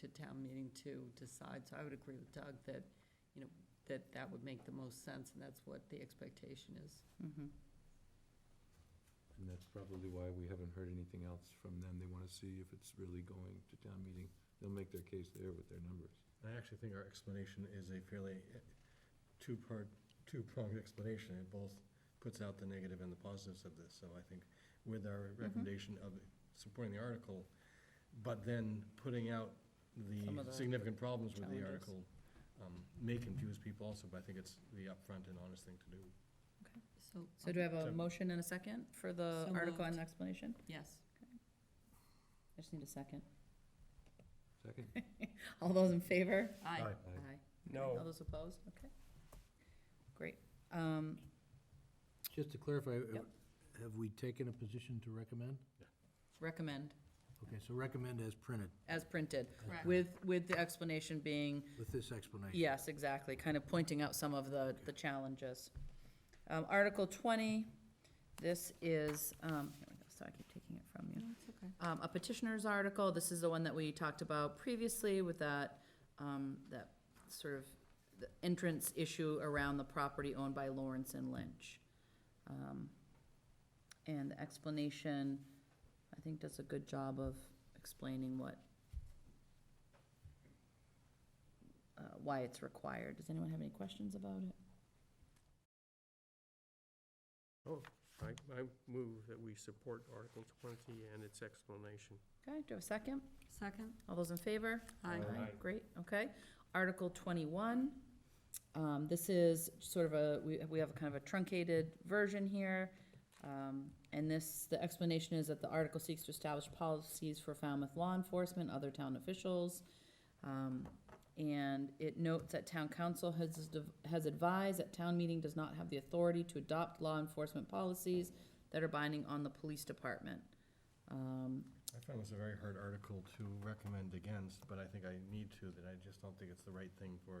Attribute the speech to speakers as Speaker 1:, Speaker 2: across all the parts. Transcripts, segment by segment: Speaker 1: to town meeting to decide. So I would agree with Doug that, you know, that that would make the most sense, and that's what the expectation is.
Speaker 2: Mhm.
Speaker 3: And that's probably why we haven't heard anything else from them. They want to see if it's really going to town meeting. They'll make their case there with their numbers.
Speaker 4: I actually think our explanation is a fairly eh, two-part, two-pronged explanation. It both puts out the negative and the positives of this. So I think with our
Speaker 2: Mm-hmm.
Speaker 4: recommendation of supporting the article, but then putting out
Speaker 2: Some of
Speaker 4: the
Speaker 2: the
Speaker 4: significant problems with the
Speaker 2: challenges.
Speaker 4: article um, may confuse people also, but I think it's the upfront and honest thing to do.
Speaker 2: Okay.
Speaker 1: So,
Speaker 2: So do I have a
Speaker 4: So-
Speaker 2: motion and a second for the
Speaker 1: So
Speaker 2: article and
Speaker 1: moved.
Speaker 2: explanation?
Speaker 1: yes.
Speaker 2: I just need a second.
Speaker 3: Second?
Speaker 2: All those in favor?
Speaker 1: Aye.
Speaker 4: Aye.
Speaker 1: Aye.
Speaker 2: All
Speaker 5: No,
Speaker 2: those opposed? Okay. Great. Um,
Speaker 6: Just to clarify, uh,
Speaker 2: Yep.
Speaker 6: have we taken a position to recommend?
Speaker 2: Recommend,
Speaker 6: Okay, so recommend as printed
Speaker 2: as printed,
Speaker 1: Correct.
Speaker 2: with, with the explanation being
Speaker 6: with this explanation.
Speaker 2: Yes, exactly, kind of pointing out some of the, the challenges. Um, Article 20, this is, um, here we go, so I keep taking it from you.
Speaker 1: No, it's okay.
Speaker 2: Um, A petitioner's article, this is the one that we talked about previously with that, um, that sort of the entrance issue around the property owned by Lawrence and Lynch. Um, And the explanation, I think, does a good job of explaining what uh, why it's required. Does anyone have any questions about it?
Speaker 5: oh, I, I move that we support Article 20 and its explanation.
Speaker 2: Okay, do you have a second?
Speaker 1: Second?
Speaker 2: All those in favor?
Speaker 1: Aye.
Speaker 5: Aye.
Speaker 2: Great, okay. Article 21, um, this is sort of a, we we have kind of a truncated version here. Um, And this, the explanation is that the article seeks to establish policies for Falmouth law enforcement, other town officials. Um, And it notes that town council has, has advised that town meeting does not have the authority to adopt law enforcement policies that are binding on the police department. Um,
Speaker 4: I found this a very hard article to recommend against, but I think I need to, that I just don't think it's the right thing for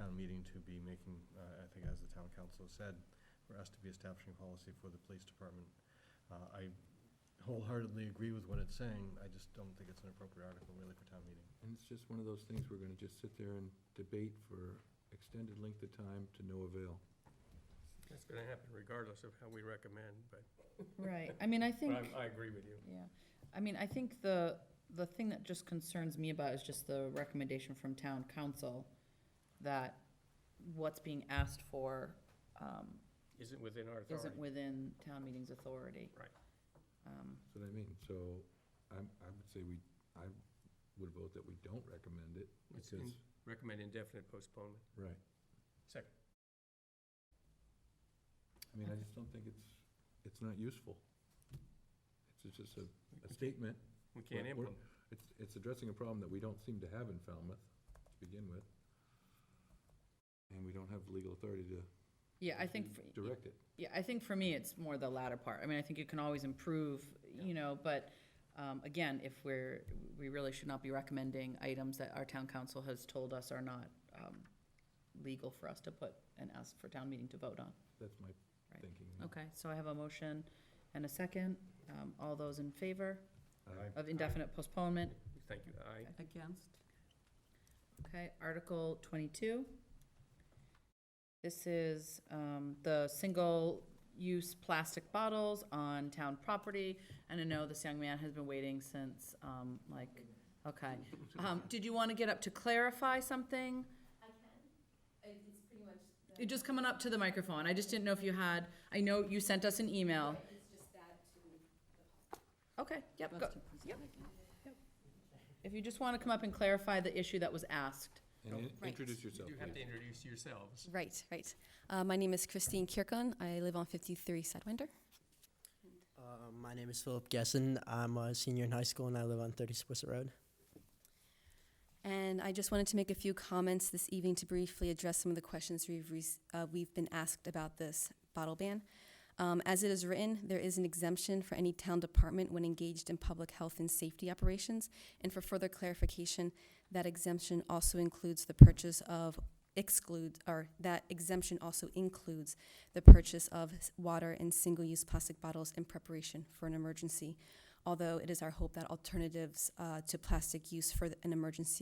Speaker 4: town meeting to be making, uh, I think as the town council said, for us to be establishing policy for the police department. Uh, I wholeheartedly agree with what it's saying, I just don't think it's an appropriate article really for town meeting.
Speaker 3: And it's just one of those things, we're going to just sit there and debate for extended length of time to no avail.
Speaker 5: That's going to happen regardless of how we recommend, but
Speaker 2: Right, I mean, I
Speaker 5: but I,
Speaker 2: think,
Speaker 5: I agree with you.
Speaker 2: yeah, I mean, I think the, the thing that just concerns me about is just the recommendation from town council that what's being asked for um,
Speaker 5: Isn't within our authority.
Speaker 2: isn't within town meeting's authority. Um,
Speaker 5: Right.
Speaker 3: That's what I mean. So I'm, I would say we, I would vote that we don't recommend it
Speaker 5: It's in-
Speaker 3: because,
Speaker 5: Recommend indefinite postponement.
Speaker 3: right.
Speaker 5: Second.
Speaker 3: I mean, I just don't think it's, it's not useful. It's just a, a statement.
Speaker 5: We can't
Speaker 3: We're- we're-
Speaker 5: implement.
Speaker 3: It's, it's addressing a problem that we don't seem to have in Falmouth to begin with. And we don't have the legal authority to
Speaker 2: Yeah, I think, for-
Speaker 3: direct it.
Speaker 2: yeah, I think for me, it's more the latter part. I mean, I think you can always improve, you know, but um, again, if we're, we really should not be recommending items that our town council has told us are not um, legal for us to put and ask for town meeting to vote on.
Speaker 3: That's my
Speaker 2: Right.
Speaker 3: thinking.
Speaker 2: Okay, so I have a motion and a second. Um, All those in favor
Speaker 3: I-
Speaker 2: of indefinite postponement?
Speaker 5: Thank you. I,
Speaker 1: Against?
Speaker 2: Okay, Article 22. This is um, the single-use plastic bottles on town property. And I know this young man has been waiting since, um, like, okay. Um, Did you want to get up to clarify something?
Speaker 7: I can. It- It's pretty much. the-
Speaker 2: You're Just coming up to the microphone. I just didn't know if you had, I know you sent us an email.
Speaker 7: Right, It's just that to the public.
Speaker 2: Okay, yep, go.
Speaker 1: Best to present
Speaker 2: yep.
Speaker 1: again.
Speaker 2: If you just want to come up and clarify the issue that was asked.
Speaker 3: And in-
Speaker 7: Right.
Speaker 3: introduce
Speaker 5: you
Speaker 3: yourself,
Speaker 5: do have to
Speaker 3: please.
Speaker 5: introduce yourselves.
Speaker 7: Right, right. Uh, my name is Christine Kirkon. I live on 53 Sedwinder.
Speaker 8: Uh, my name is Philip Gesson. I'm a senior in high school and I live on 30 Swisher Road.
Speaker 7: And I just wanted to make a few comments this evening to briefly address some of the questions we've, rec- uh, we've been asked about this bottle ban. Um, as it is written, there is an exemption for any town department when engaged in public health and safety operations. And for further clarification, that exemption also includes the purchase of excludes or that exemption also includes the purchase of s- water and single-use plastic bottles in preparation for an emergency. Although it is our hope that alternatives uh, to plastic use for th- an emergency